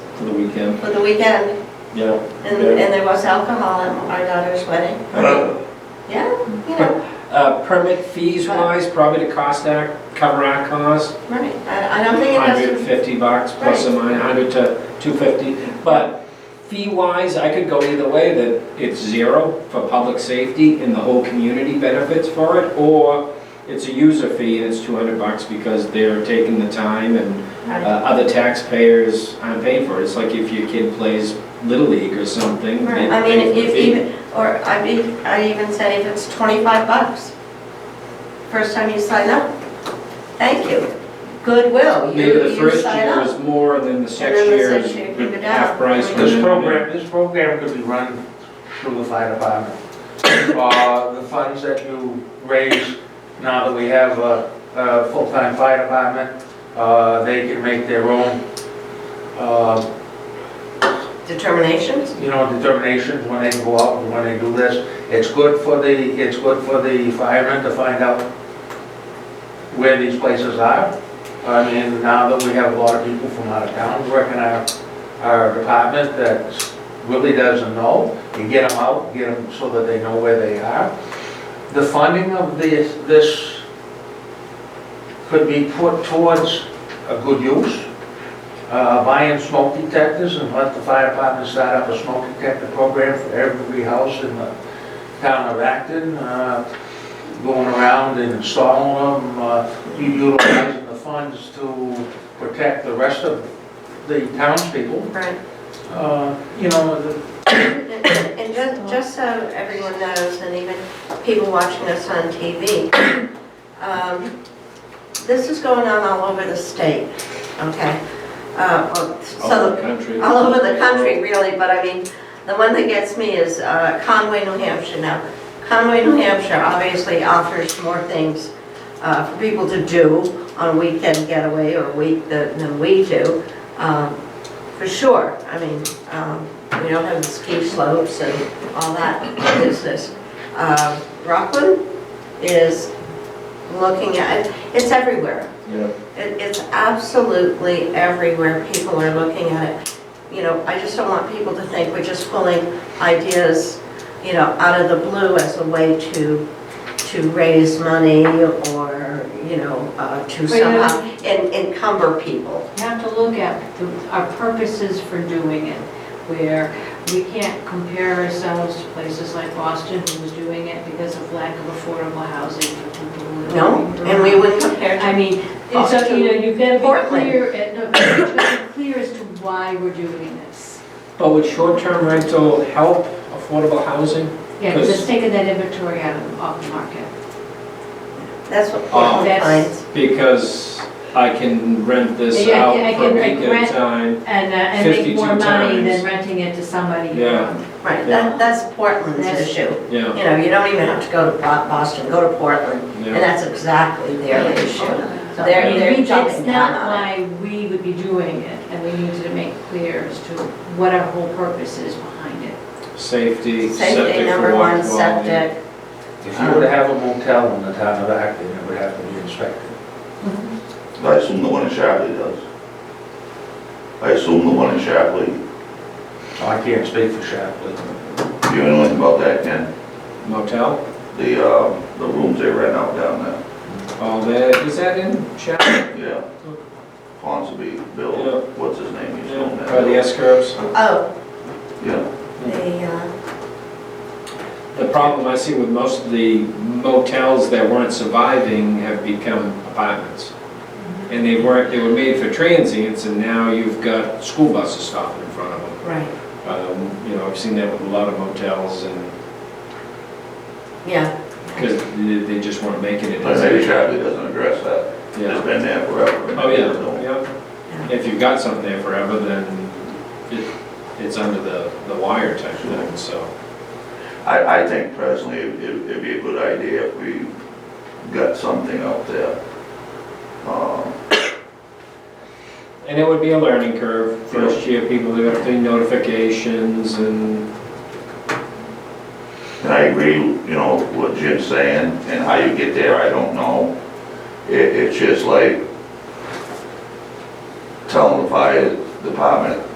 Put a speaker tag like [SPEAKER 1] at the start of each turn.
[SPEAKER 1] for the weekend.
[SPEAKER 2] for the weekend,
[SPEAKER 1] Yeah.
[SPEAKER 2] and, and there was alcohol at our daughter's wedding. Yeah, you know,
[SPEAKER 3] Uh, permit fees wise, probably to cost that, cover our cost,
[SPEAKER 2] right, I, I don't think it
[SPEAKER 3] hundred
[SPEAKER 2] has
[SPEAKER 3] and
[SPEAKER 2] to,
[SPEAKER 3] fifty bucks, plus or minus, hundred to two fifty. But fee wise, I could go either way, that it's zero for public safety and the whole community benefits for it, or it's a user fee and it's two hundred bucks because they're taking the time and uh,
[SPEAKER 2] right,
[SPEAKER 3] other taxpayers aren't paying for it. It's like if your kid plays Little League or something. they
[SPEAKER 2] right. I mean,
[SPEAKER 3] pay
[SPEAKER 2] if
[SPEAKER 3] for the
[SPEAKER 2] if
[SPEAKER 3] fee.
[SPEAKER 2] even, or I'd be, I'd even say if it's twenty-five bucks, first time you sign up, thank you. Goodwill,
[SPEAKER 3] Maybe
[SPEAKER 2] you,
[SPEAKER 3] the
[SPEAKER 2] you
[SPEAKER 3] first
[SPEAKER 2] sign
[SPEAKER 3] year
[SPEAKER 2] up.
[SPEAKER 3] is more and then the
[SPEAKER 2] then
[SPEAKER 3] next
[SPEAKER 2] the
[SPEAKER 3] year
[SPEAKER 2] next
[SPEAKER 3] is
[SPEAKER 2] year, keep it
[SPEAKER 3] half
[SPEAKER 2] down.
[SPEAKER 3] price.
[SPEAKER 2] This
[SPEAKER 3] and
[SPEAKER 4] This
[SPEAKER 3] then-
[SPEAKER 4] program, this program could be run through the fire department. Uh, The funds that you raise, now that we have a, a full-time fire department, uh, they can make their own, uh,
[SPEAKER 2] Determinations,
[SPEAKER 4] you know, determinations when they go out and when they do this. It's good for the, it's good for the firemen to find out where these places are. I mean, now that we have a lot of people from out of town working our, our department that really doesn't know, you get them out, get them so that they know where they are. The funding of this, this could be put towards a good use uh, buying smoke detectors and let the fire department start up a smoke detector program for every house in the town of Acton, uh, going around and installing them, uh, utilizing the funds to protect the rest of the townspeople.
[SPEAKER 2] right.
[SPEAKER 4] Uh, You know, the-
[SPEAKER 2] And and just, just so everyone knows, and even people watching us on TV, um, this is going on all over the state, okay? Uh, well,
[SPEAKER 3] All over
[SPEAKER 2] So,
[SPEAKER 3] the country.
[SPEAKER 2] all over the country, really, but I mean, the one that gets me is uh, Conway, New Hampshire. Now, Conway, New Hampshire obviously offers more things uh, for people to do on a weekend getaway or week than than we do, um, for sure. I mean, um, we don't have the ski slopes and all that business. Um, Rockland is looking at, it's everywhere.
[SPEAKER 1] Yeah.
[SPEAKER 2] It, it's absolutely everywhere, people are looking at it. You know, I just don't want people to think we're just pulling ideas, you know, out of the blue as a way to, to raise money or, you know, uh, to
[SPEAKER 5] Well, yeah.
[SPEAKER 2] somehow en- encumber people.
[SPEAKER 5] You have to look at the- our purposes for doing it, where we can't compare ourselves to places like Boston, who's doing it because of lack of affordable housing for people who are
[SPEAKER 2] No,
[SPEAKER 5] living
[SPEAKER 2] and we wouldn't compare
[SPEAKER 5] I
[SPEAKER 2] to,
[SPEAKER 5] mean, and so, you know, you've got to be
[SPEAKER 2] Portland.
[SPEAKER 5] clear, and, no, you've got to be clear as to why we're doing this.
[SPEAKER 3] But would short-term rental help affordable housing?
[SPEAKER 5] Yeah, just
[SPEAKER 3] Because-
[SPEAKER 5] taking that inventory out of, off the market.
[SPEAKER 2] that's what
[SPEAKER 3] Oh,
[SPEAKER 2] Portland
[SPEAKER 5] that's-
[SPEAKER 2] finds.
[SPEAKER 3] Because I can rent this
[SPEAKER 5] Yeah, I
[SPEAKER 3] out
[SPEAKER 5] can- I
[SPEAKER 3] for a
[SPEAKER 5] can, like,
[SPEAKER 3] week at
[SPEAKER 5] rent-
[SPEAKER 3] a time.
[SPEAKER 5] And, uh, and make
[SPEAKER 3] 52
[SPEAKER 5] more money
[SPEAKER 3] times.
[SPEAKER 5] than renting it to somebody. you
[SPEAKER 3] Yeah.
[SPEAKER 5] know.
[SPEAKER 2] Right,
[SPEAKER 3] Yeah.
[SPEAKER 2] that, that's Portland's
[SPEAKER 5] That's-
[SPEAKER 2] issue.
[SPEAKER 3] Yeah,
[SPEAKER 2] You know, you don't even have to go to Bo- Boston, go to Portland, and
[SPEAKER 3] yeah.
[SPEAKER 2] that's exactly their issue.
[SPEAKER 5] So,
[SPEAKER 2] They're-
[SPEAKER 5] Oh, I mean,
[SPEAKER 2] they're
[SPEAKER 5] we-
[SPEAKER 2] jumping
[SPEAKER 5] It's not
[SPEAKER 2] down on
[SPEAKER 5] why we would be doing it, and we needed to make clear as to what our whole purpose is behind it.
[SPEAKER 3] Safety, septic
[SPEAKER 2] Safety,
[SPEAKER 3] for
[SPEAKER 2] number
[SPEAKER 3] water
[SPEAKER 2] one,
[SPEAKER 3] quality.
[SPEAKER 2] septic.
[SPEAKER 4] if you were to have a motel in the town of Acton, it would have to be inspected.
[SPEAKER 6] I assume the one in Shapley does. I assume the one in Shapley, do
[SPEAKER 4] Oh, I can't speak for Shapley.
[SPEAKER 6] you know anything about that, Ken?
[SPEAKER 3] Motel,
[SPEAKER 6] The, uh, the rooms they rent out down there,
[SPEAKER 3] all that, is that in Chapel?
[SPEAKER 6] yeah. Ponsonby,
[SPEAKER 3] Yeah.
[SPEAKER 6] Bill, what's his name, he's doing that.
[SPEAKER 3] By the S curves?
[SPEAKER 2] Oh,
[SPEAKER 6] Yeah,
[SPEAKER 2] The, uh,
[SPEAKER 3] The problem I see with most of the motels that weren't surviving have become apartments. And they weren't, they were made for transients, and now you've got school buses stopping in front of them.
[SPEAKER 2] right,
[SPEAKER 3] Um, You know, I've seen that with a lot of motels, and,
[SPEAKER 2] yeah,
[SPEAKER 3] because they just weren't making it.
[SPEAKER 6] but maybe Shapley doesn't address that, it's
[SPEAKER 3] Yeah.
[SPEAKER 6] been there forever.
[SPEAKER 3] Oh, yeah, yeah. If you've got something there forever, then it- it's under the the wire type thing, so.
[SPEAKER 6] I, I think personally, it- it- it'd be a good idea if we got something out there. Um,
[SPEAKER 3] And it would be a learning curve, first year, people do have to do notifications and,
[SPEAKER 6] And I agree, you know, what Jim's saying, and how you get there, I don't know. It, it's just like telling the fire department,